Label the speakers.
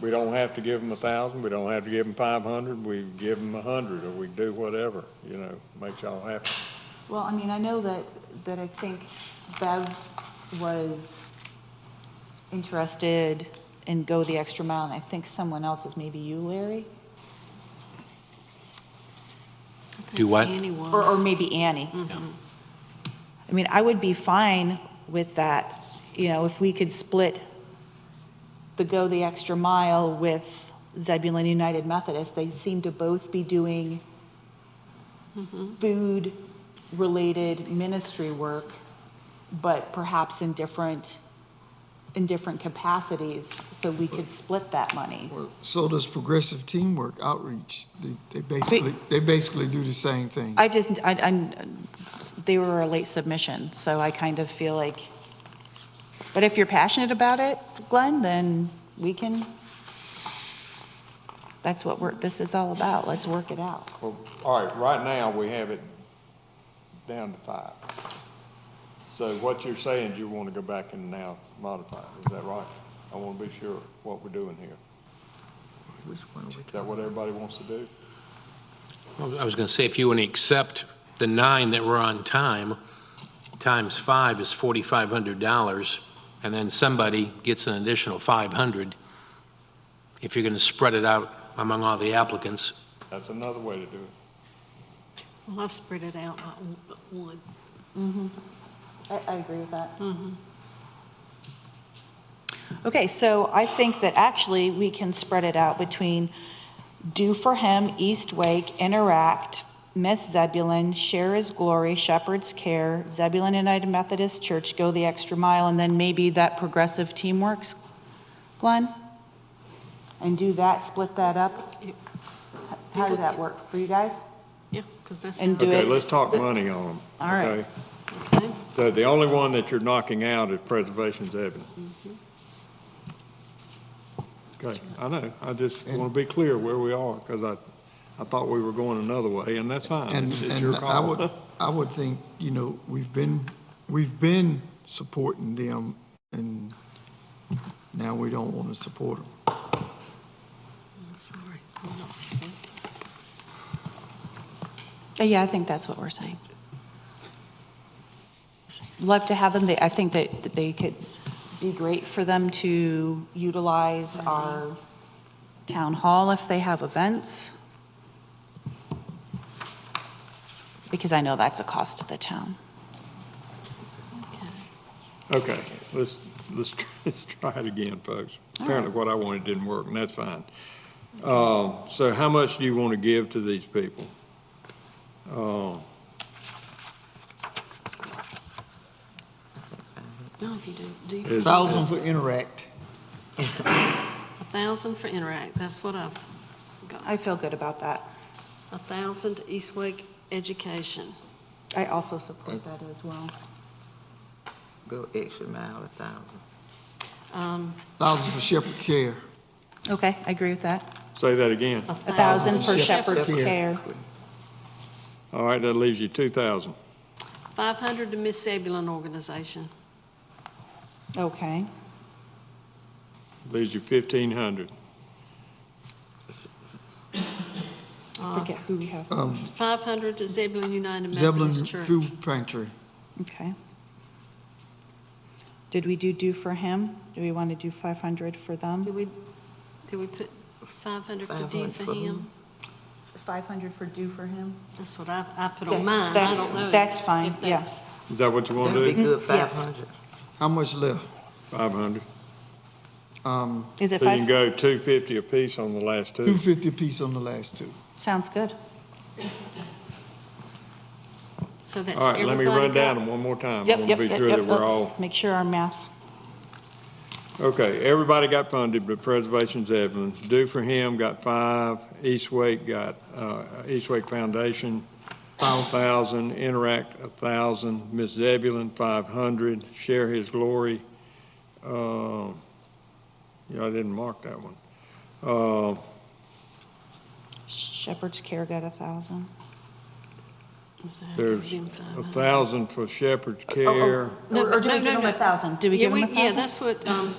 Speaker 1: We don't have to give them a thousand, we don't have to give them five hundred, we give them a hundred, or we do whatever, you know, makes y'all happy.
Speaker 2: Well, I mean, I know that, that I think Bev was interested in go the extra mile, and I think someone else was, maybe you, Larry?
Speaker 3: Do what?
Speaker 4: Annie
Speaker 2: Or, or
Speaker 4: was.
Speaker 2: maybe Annie. I mean, I would be fine with that, you know, if we could split the go the extra mile with Zebulon United Methodist. They seem to both be doing food-related ministry work, but perhaps in different, in different capacities, so we could split that money.
Speaker 5: Well, So does progressive teamwork outreach. They, they basically, they basically do the same thing.
Speaker 2: I just, I, I, they were a late submission, so I kind of feel like, but if you're passionate about it, Glenn, then we can, that's what we're, this is all about, let's work it out.
Speaker 1: Well, all right, right now, we have it down to five. So what you're saying, is you want to go back and now modify it, is that right? I want to be sure what we're doing here. Is that what everybody wants to do?
Speaker 3: I was going to say, if you want to accept the nine that were on time, times five is $4,500, and then somebody gets an additional 500, if you're going to spread it out among all the applicants,
Speaker 1: That's another way to do it.
Speaker 4: Well, I've spread it out like one- one.
Speaker 2: I, I agree with that. Mm-hmm. Okay, so I think that actually we can spread it out between Do For Him, East Wake, Interact, Miss Zebulon, Share His Glory, Shepherd's Care, Zebulon United Methodist Church, Go the Extra Mile, and then maybe that Progressive Teamworks, Glenn? And do that, split that up? How does that work for you guys?
Speaker 4: Yeah, because that's.
Speaker 2: And
Speaker 4: how-
Speaker 2: do
Speaker 1: Okay,
Speaker 2: it.
Speaker 1: let's talk money on them.
Speaker 2: All right. Mm-hmm.
Speaker 1: okay?
Speaker 4: Okay.
Speaker 1: So the only one that you're knocking out is Preservation's Avenue.
Speaker 2: Mm-hmm.
Speaker 1: Okay, I know, I just want to be clear where we are, because I, I thought we were going another way, and that's fine,
Speaker 5: And,
Speaker 1: it's it's your
Speaker 5: and I would,
Speaker 1: call.
Speaker 5: I would think, you know, we've been, we've been supporting them and now we don't want to support them.
Speaker 4: I'm sorry. I'm not sorry.
Speaker 2: Uh, Yeah, I think that's what we're saying. Love to have them, they, I think that, that they could be great for them to utilize our town hall if they have events. Because I know that's a cost to the town.
Speaker 4: Okay.
Speaker 1: Okay, let's, let's, try- let's try it again, folks. Apparently what I wanted didn't work, and that's fine. Um, so how much do you want to give to these people?
Speaker 4: No, if you do, do you-
Speaker 1: Is-
Speaker 5: Thousand for interact.
Speaker 4: a thousand for Interact, that's what I've got.
Speaker 2: I feel good about that.
Speaker 4: A thousand to East Wake Education.
Speaker 2: I also support that as well.
Speaker 6: go extra mile, a thousand.
Speaker 4: Um,
Speaker 5: Thousand for Shepherd Care.
Speaker 2: Okay, I agree with that.
Speaker 1: Say that again.
Speaker 4: A
Speaker 2: A thousand for
Speaker 5: Thousand
Speaker 2: Shepherd's
Speaker 5: Shepherd's
Speaker 2: Care.
Speaker 1: All right, that leaves you two thousand.
Speaker 4: Five hundred to Miss Zebulon Organization.
Speaker 2: Okay,
Speaker 1: Leaves you fifteen hundred.
Speaker 2: forget who we have.
Speaker 4: Five hundred to Zebulon United
Speaker 5: Zebulon
Speaker 4: Methodist Church.
Speaker 5: Food Pantry.
Speaker 2: Okay. Did we do do for him? Do we want to do 500 for
Speaker 4: Did
Speaker 2: them?
Speaker 4: we, did we put five hundred for D
Speaker 6: 500
Speaker 4: for
Speaker 6: for who?
Speaker 4: him?
Speaker 2: 500 for do for him?
Speaker 4: That's what I, I put
Speaker 2: Yeah,
Speaker 4: on Oh, mine, I
Speaker 2: that's-
Speaker 4: don't know.
Speaker 2: that's
Speaker 4: if
Speaker 2: fine,
Speaker 4: that's-
Speaker 2: yes.
Speaker 1: Is that what you want
Speaker 6: That'd
Speaker 1: to
Speaker 6: be
Speaker 1: do?
Speaker 6: good, five hundred.
Speaker 5: How much left?
Speaker 1: Five hundred.
Speaker 5: Um,
Speaker 2: Is it
Speaker 1: So you can
Speaker 2: five?
Speaker 1: go two fifty apiece on the last
Speaker 5: two
Speaker 1: two.
Speaker 5: fifty apiece on the last two.
Speaker 2: Sounds good.
Speaker 4: So that's
Speaker 1: All right,
Speaker 4: everybody
Speaker 1: let me run down
Speaker 4: got-
Speaker 1: them one more time.
Speaker 2: Yep,
Speaker 1: I
Speaker 2: yep,
Speaker 1: want to be
Speaker 2: yep,
Speaker 1: sure
Speaker 2: yep,
Speaker 1: that we're
Speaker 2: let's
Speaker 1: all,
Speaker 2: Make sure our math,
Speaker 1: okay, everybody got funded, but Preservation's Evelyn. Do for Him got five, East Wake got, uh, East Wake Foundation, thousand, Interact, a thousand, Miss Zebulon, five hundred, Share His Glory, uh, yeah, I didn't mark that one. Uh,
Speaker 2: Shepherd's Care got a 1,000.
Speaker 4: So I
Speaker 1: there's
Speaker 4: gave them five
Speaker 1: a
Speaker 4: hundred.
Speaker 1: thousand for Shepherd's Care.
Speaker 4: No,
Speaker 2: Or or
Speaker 4: but
Speaker 2: did we
Speaker 4: no,
Speaker 2: give
Speaker 4: no,
Speaker 2: him a
Speaker 4: no.
Speaker 2: 1,000? Did we
Speaker 4: Yeah,
Speaker 2: give him a
Speaker 4: Yeah,
Speaker 2: 1,000?
Speaker 4: that's what, um,